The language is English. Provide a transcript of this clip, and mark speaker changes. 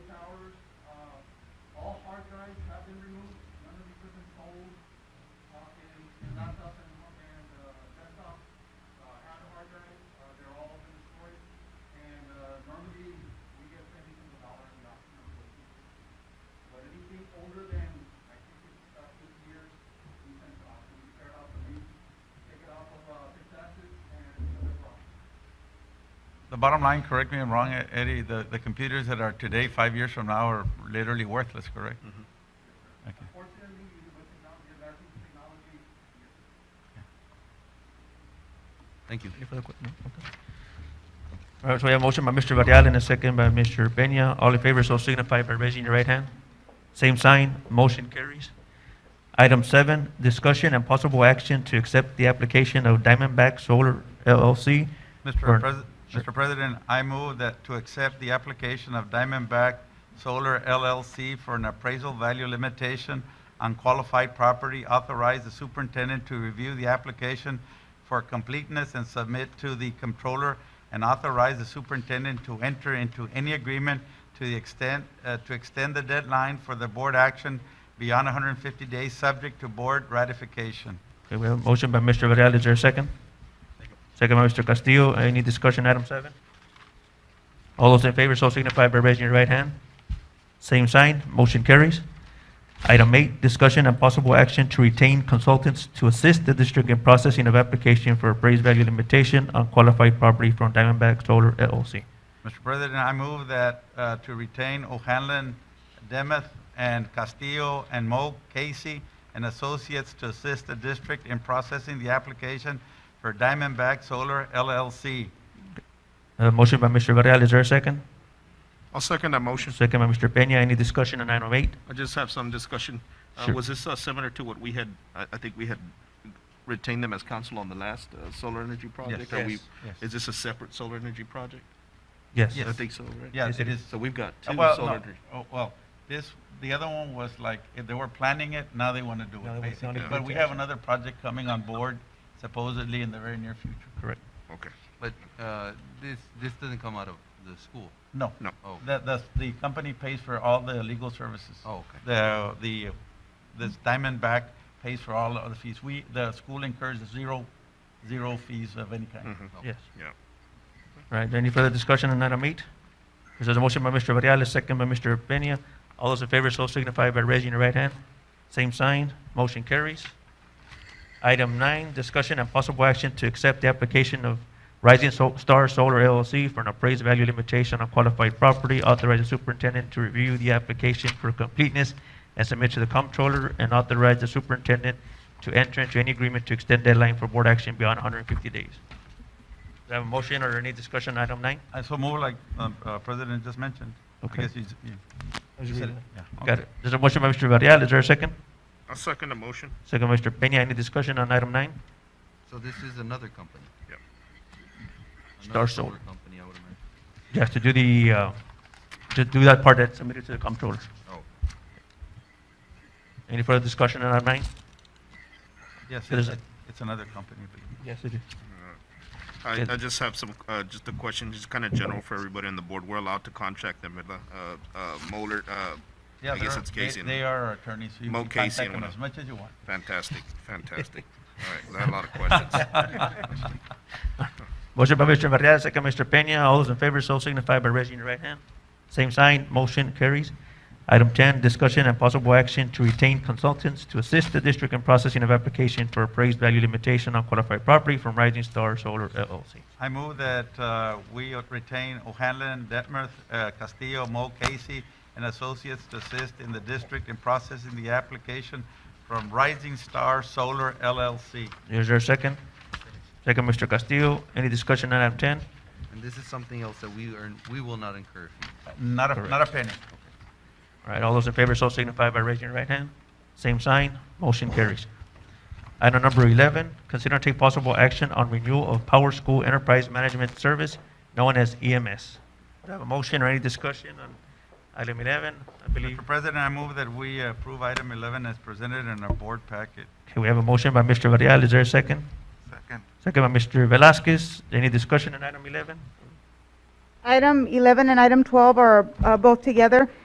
Speaker 1: uh, materials, other equipment sold, uh, and and laptops and, and, uh, desktops, uh, had a hard drive, uh, they're all been destroyed. And, uh, normally, we get anything from the dollar and the option of the But anything older than, I think it's about fifty years, we send to auction, we tear it off the lease, take it off of, uh, fixed assets and other property.
Speaker 2: The bottom line, correct me if I'm wrong, E- Eddie, the, the computers that are today, five years from now, are literally worthless, correct? Okay.
Speaker 1: Unfortunately, with technology, advancing technology, yes.
Speaker 3: Thank you.
Speaker 4: Any further que- no? Okay. All right, so we have a motion by Mr. Varela and a second by Mr. Pena. All in favor, so signify by raising your right hand. Same sign, motion carries. Item seven, discussion and possible action to accept the application of Diamondback Solar LLC. for-
Speaker 2: Mr. Pres-
Speaker 4: Sure.
Speaker 2: Mr. President, I move that to accept the application of Diamondback Solar LLC for an appraisal value limitation on qualified property, authorize the superintendent to review the application for completeness and submit to the controller, and authorize the superintendent to enter into any agreement to the extent, uh, to extend the deadline for the board action beyond 150 days, subject to board ratification.
Speaker 4: Okay, we have a motion by Mr. Varela. Is there a second? Second by Mr. Castillo. Any discussion, item seven? All those in favor, so signify by raising your right hand. Same sign, motion carries. Item eight, discussion and possible action to retain consultants to assist the district in processing of application for appraised value limitation on qualified property from Diamondback Solar LLC.
Speaker 2: Mr. President, I move that uh, to retain O'Hanlon, Demuth, and Castillo, and Mo Casey and Associates to assist the district in processing the application for Diamondback Solar LLC.
Speaker 4: Uh, motion by Mr. Varela. Is there a second?
Speaker 5: I'll second that motion.
Speaker 4: Second by Mr. Peña. Any discussion on item eight?
Speaker 5: I just have some discussion. Uh,
Speaker 4: Sure.
Speaker 5: Was this uh, similar to what we had, I I think we had retained them as counsel on the last uh, solar energy project? Are we-
Speaker 2: Yes, yes.
Speaker 5: Is this a separate solar energy project?
Speaker 4: Yes.
Speaker 2: Yes.
Speaker 5: I think so, right?
Speaker 2: Yes,
Speaker 4: Yes,
Speaker 2: it
Speaker 4: it
Speaker 2: is.
Speaker 5: So we've got
Speaker 2: Uh,
Speaker 5: two
Speaker 2: well,
Speaker 5: solar.
Speaker 2: no,
Speaker 5: energy-
Speaker 2: oh, Well, this, the other one was like, if they were planning it, now they want to do
Speaker 4: Now they
Speaker 2: it,
Speaker 4: want- now
Speaker 2: basically.
Speaker 4: they want
Speaker 2: But
Speaker 4: to
Speaker 2: we
Speaker 4: do
Speaker 2: have
Speaker 4: it.
Speaker 2: another project coming on board supposedly in the very near future.
Speaker 4: Correct.
Speaker 5: Okay.
Speaker 3: But uh, this this doesn't come out of the school.
Speaker 2: No.
Speaker 5: No.
Speaker 3: Oh.
Speaker 2: The, the, the company pays for all the legal services.
Speaker 3: Oh, okay.
Speaker 2: The, the, this Diamondback pays for all of the fees. We, the school incurs zero, zero fees of any kind.
Speaker 5: Mhm.
Speaker 4: Yes.
Speaker 5: Yeah.
Speaker 4: All right, any further discussion on item eight? There's a motion by Mr. Varela, second by Mr. Peña. All those in favor, so signify by raising your right hand. Same sign, motion carries. Item nine, discussion and possible action to accept the application of Rising Sol- Star Solar LLC for an appraised value limitation on qualified property. Authorize the superintendent to review the application for completeness and submit to the comptroller, and authorize the superintendent to enter into any agreement to extend deadline for board action beyond 150 days. Do I have a motion or any discussion on item nine?
Speaker 2: I so move like, um, uh, President just mentioned. I
Speaker 4: Okay.
Speaker 2: guess you s- you- you said it. Yeah.
Speaker 4: Got
Speaker 2: Okay.
Speaker 4: it. There's a motion by Mr. Varela. Is there a second?
Speaker 5: I'll second the motion.
Speaker 4: Second by Mr. Peña. Any discussion on item nine?
Speaker 3: So this is another company.
Speaker 5: Yeah.
Speaker 4: Star
Speaker 3: Another
Speaker 4: Solar.
Speaker 3: solar company, I would imagine.
Speaker 4: You have to do the, uh, to do that part that's submitted to the comptroller.
Speaker 3: Oh.
Speaker 4: Any further discussion on item nine?
Speaker 2: Yes,
Speaker 4: It is
Speaker 2: it's,
Speaker 4: a-
Speaker 2: it's another company.
Speaker 4: Yes, it is.
Speaker 5: I,
Speaker 4: Good.
Speaker 5: I just have some, uh, just a question, just kind of general for everybody on the board. We're allowed to contract them, uh, uh, Moller, uh,
Speaker 2: Yeah,
Speaker 5: I guess
Speaker 2: they're-
Speaker 5: it's
Speaker 2: they-
Speaker 5: Casey. and-
Speaker 2: They are our attorneys. You
Speaker 5: Mo
Speaker 2: can
Speaker 5: Casey
Speaker 2: contact
Speaker 5: and
Speaker 2: them
Speaker 5: one
Speaker 2: as
Speaker 5: of-
Speaker 2: much as you want.
Speaker 5: Fantastic, fantastic. All right, 'cause I had a lot of questions.
Speaker 4: Motion by Mr. Varela, second by Mr. Peña. All those in favor, so signify by raising your right hand. Same sign, motion carries. Item 10, discussion and possible action to retain consultants to assist the district in processing of application for appraised value limitation on qualified property from Rising Star Solar LLC.
Speaker 2: I move that uh, we retain O'Hanlon, Detmers, uh, Castillo, Mo Casey, and Associates to assist in the district in processing the application from Rising Star Solar LLC.
Speaker 4: Is there a second? Second, Mr. Castillo. Any discussion on item 10?
Speaker 3: And this is something else that we earn. We will not incur. fees.
Speaker 2: Not a, not a penny.
Speaker 4: All right, all those in favor, so signify by raising your right hand. Same sign, motion carries. Item number 11, consider and take possible action on renewal of Power School Enterprise Management Service, known as EMS. Do I have a motion or any discussion on item 11? I believe,
Speaker 2: Mr. President, I move that we approve item 11 as presented in our board packet.
Speaker 4: okay, we have a motion by Mr. Varela. Is there a second?
Speaker 2: Second.
Speaker 4: Second by Mr. Velasquez. Any discussion on item 11?
Speaker 6: Item 11 and item 12 are uh, both together.